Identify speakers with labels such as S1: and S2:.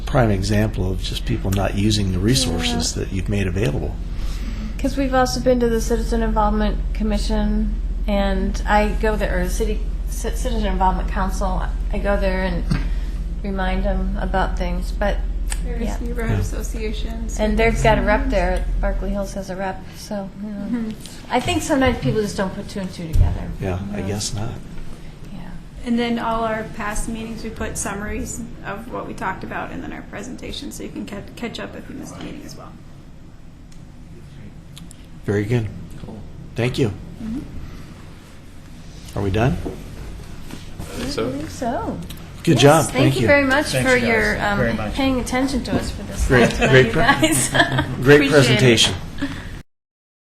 S1: prime example of just people not using the resources that you've made available.
S2: Because we've also been to the Citizen Involvement Commission, and I go there, or the City Ci- Citizen Involvement Council. I go there and remind them about things, but
S3: There's
S2: yeah.
S3: neighborhood associations.
S2: And they've got a rep there. Berkeley Hills has a rep, so you know.
S3: Mm-hmm.
S2: I think sometimes people just don't put two and two together.
S1: Yeah, I guess not.
S2: Yeah.
S3: And then all our past meetings, we put summaries of what we talked about, and then our presentation, so you can ca- catch up if you missed a meeting as well.
S1: Very good. Thank you.
S2: Mm-hmm.
S1: Are we done?
S2: I believe so.
S1: Good job.
S2: Yes, Thank, you, very much
S4: Thanks,
S2: for
S4: guys.
S2: your um,
S4: Very much.
S2: paying attention to us for this.
S1: Great-
S2: last one,
S1: great
S2: you
S1: pre-
S2: guys.
S1: Great
S2: Appreciate it.
S1: presentation.